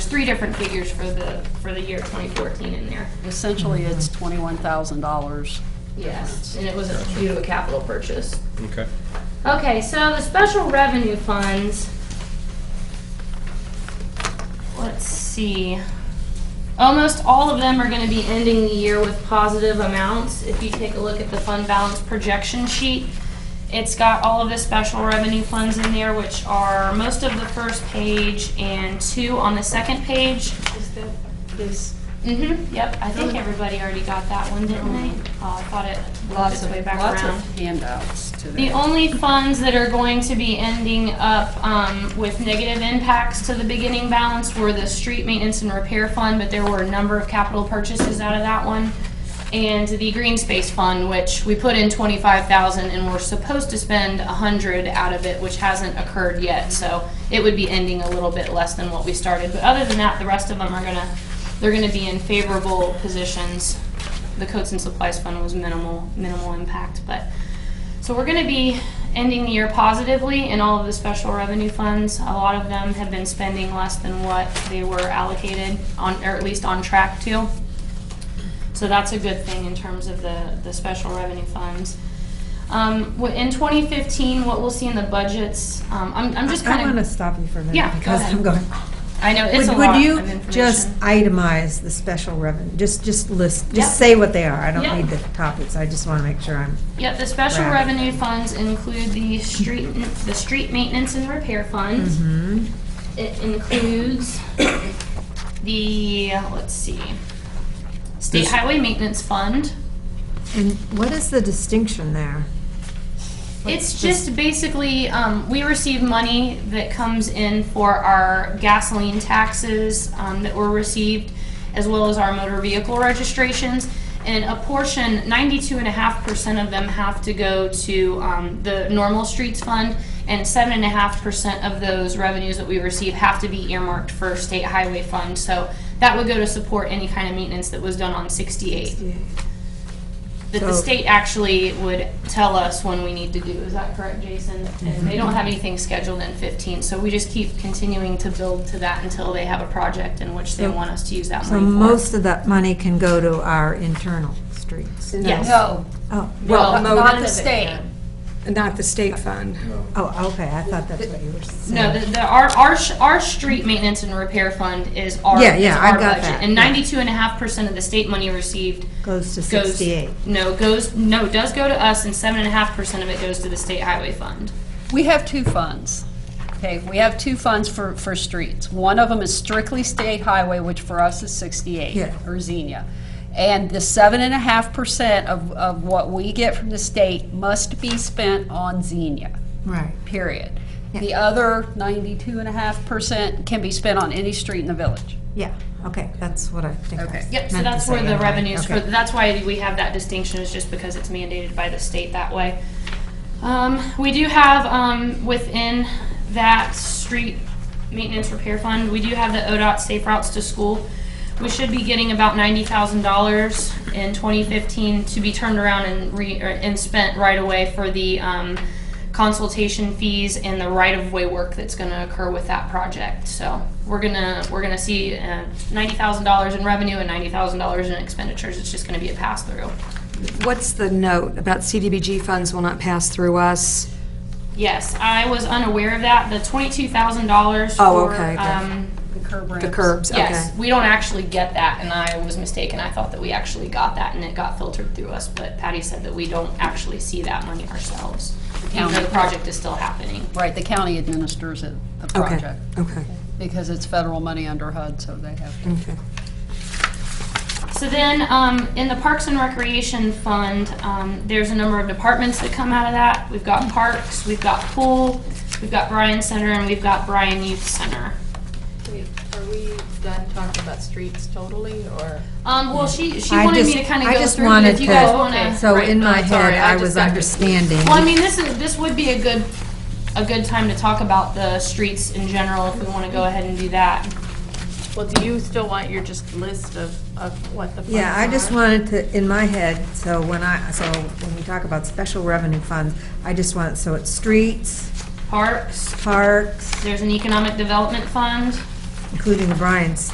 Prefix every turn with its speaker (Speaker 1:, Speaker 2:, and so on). Speaker 1: three different figures for the, for the year 2014 in there.
Speaker 2: Essentially, it's twenty-one thousand dollars.
Speaker 1: Yes, and it was due to a capital purchase.
Speaker 3: Okay.
Speaker 1: Okay, so the special revenue funds. Let's see. Almost all of them are gonna be ending the year with positive amounts. If you take a look at the fund balance projection sheet, it's got all of the special revenue funds in there, which are most of the first page and two on the second page.
Speaker 4: Is that, is,
Speaker 1: Mm-hmm, yep, I think everybody already got that one, didn't they? Oh, I thought it worked
Speaker 2: Lots
Speaker 1: its
Speaker 2: of,
Speaker 1: way back around.
Speaker 2: lots of handouts to
Speaker 1: The
Speaker 2: them.
Speaker 1: only funds that are going to be ending up um, with negative impacts to the beginning balance were the street maintenance and repair fund, but there were a number of capital purchases out of that one. And the green space fund, which we put in twenty-five thousand and we're supposed to spend a hundred out of it, which hasn't occurred yet. So it would be ending a little bit less than what we started. But other than that, the rest of them are gonna, they're gonna be in favorable positions. The coats and supplies fund was minimal, minimal impact, but so we're going to be ending the year positively in all of the special revenue funds. A lot of them have been spending less than what they were allocated on, or at least on track to. So that's a good thing in terms of the, the special revenue funds. Um, wh- in 2015, what we'll see in the budgets, um, I'm, I'm just
Speaker 4: I
Speaker 1: kind
Speaker 4: want to
Speaker 1: of,
Speaker 4: stop you for a minute.
Speaker 1: Yeah, go
Speaker 4: Because
Speaker 1: ahead.
Speaker 4: I'm going,
Speaker 1: I know it's
Speaker 4: would
Speaker 1: a
Speaker 4: would
Speaker 1: lot of
Speaker 4: you
Speaker 1: information.
Speaker 4: just itemize the special revenue? Just, just list,
Speaker 1: Yeah.
Speaker 4: just say what they are. I
Speaker 1: Yeah.
Speaker 4: don't need the topics. I just want to make sure I'm,
Speaker 1: Yep, the special
Speaker 4: Right.
Speaker 1: revenue funds include the street, the street maintenance and repair fund. It includes the, let's see, state
Speaker 3: This-
Speaker 1: highway maintenance fund.
Speaker 4: and what is the distinction there?
Speaker 1: It's just basically, um, we receive money that comes in for our gasoline taxes, um, that were received, as well as our motor vehicle registrations. And a portion, ninety-two and a half percent of them have to go to, um, the normal streets fund, and seven and a half percent of those revenues that we receive have to be earmarked for state highway fund. So that would go to support any kind of maintenance that was done on sixty-eight that the
Speaker 4: So-
Speaker 1: state actually would tell us when we need to do. Is that correct, Jason? And they
Speaker 4: Mm-hmm.
Speaker 1: don't have anything scheduled in 15, so we just keep continuing to build to that until they have a project in which they
Speaker 4: So-
Speaker 1: want us to use that
Speaker 4: So
Speaker 1: money for.
Speaker 4: most of that money can go to our internal streets.
Speaker 1: Yes.
Speaker 5: No,
Speaker 4: Oh,
Speaker 5: well,
Speaker 1: No, none
Speaker 5: not
Speaker 1: of
Speaker 5: the
Speaker 1: it
Speaker 5: state.
Speaker 6: Not the state fund.
Speaker 4: oh, okay, I thought that's what you were saying.
Speaker 1: No, the, the, our, our, sh- our street maintenance and repair fund is our,
Speaker 4: Yeah,
Speaker 1: is
Speaker 4: yeah, I
Speaker 1: our
Speaker 4: got
Speaker 1: budget.
Speaker 4: that.
Speaker 1: And 92 and a half percent of the state money received
Speaker 4: Goes to
Speaker 1: goes.
Speaker 4: 68.
Speaker 1: No, goes, no, does go to us and seven and a half percent of it goes to the state highway fund.
Speaker 2: We have two funds, okay? We have two funds for, for streets. One of them is strictly state highway, which for us is sixty-eight,
Speaker 4: Yeah.
Speaker 2: or Xenia. And the seven and a half percent of, of what we get from the state must be spent on Xenia.
Speaker 4: Right.
Speaker 2: period. The other ninety-two and a half percent can be spent on any street in the village.
Speaker 4: Yeah, okay, that's what I think I
Speaker 2: Okay.
Speaker 1: Yep, so
Speaker 4: meant to
Speaker 1: that's where
Speaker 4: say
Speaker 1: the
Speaker 4: anyway.
Speaker 1: revenues for,
Speaker 4: Okay.
Speaker 1: that's why we have that distinction, is just because it's mandated by the state that way. Um, we do have, um, within that street maintenance repair fund, we do have the ODOT Safe Routes to School. We should be getting about ninety thousand dollars in twenty fifteen to be turned around and re, or- and spent right away for the, um, consultation fees and the right-of-way work that's gonna occur with that project. So we're gonna, we're gonna see uh, $90,000 in revenue and $90,000 in expenditures. It's just gonna be a pass-through.
Speaker 6: What's the note about CDBG funds will not pass through us?
Speaker 1: Yes, I was unaware of that. The $22,000 for...
Speaker 6: Oh, okay, good.
Speaker 1: um,
Speaker 2: The curb
Speaker 6: The
Speaker 2: ramps.
Speaker 6: curbs, okay.
Speaker 1: Yes, we don't actually get that, and I was mistaken. I thought that we actually got that, and it got filtered through us. But Patty said that we don't actually see that money ourselves, even though the project is still happening.
Speaker 2: Right, the county administers it, the
Speaker 6: Okay,
Speaker 2: project,
Speaker 6: okay,
Speaker 2: because it's federal money under HUD, so they have to.
Speaker 6: okay.
Speaker 1: So then, um, in the Parks and Recreation Fund, um, there's a number of departments that come out of that. We've got parks, we've got pool, we've got Bryan Center, and we've got Bryan Youth Center.
Speaker 5: Wait, Are we done talking about streets totally, or?
Speaker 1: Um, well, she, she
Speaker 4: I
Speaker 1: wanted me
Speaker 4: just-
Speaker 1: to kind of
Speaker 4: I
Speaker 1: go
Speaker 4: just
Speaker 1: through, but if
Speaker 4: wanted
Speaker 1: you guys
Speaker 4: to-
Speaker 1: wanna.
Speaker 4: So
Speaker 1: right,
Speaker 4: in my
Speaker 5: I'm sorry,
Speaker 4: head,
Speaker 5: I
Speaker 4: I
Speaker 5: just
Speaker 4: was
Speaker 5: got-
Speaker 4: understanding.
Speaker 1: Well, I mean, this is, this would be a good, a good time to talk about the streets in general, if we want to go ahead and do that.
Speaker 5: Well, do you still want your just list of, of what the funds
Speaker 4: Yeah, I just
Speaker 5: are?
Speaker 4: wanted to, in my head, so when I, so when we talk about special revenue funds, I just want, so it's streets,
Speaker 1: Parks,
Speaker 4: parks,
Speaker 1: there's an economic development fund,
Speaker 4: including the Bryant's,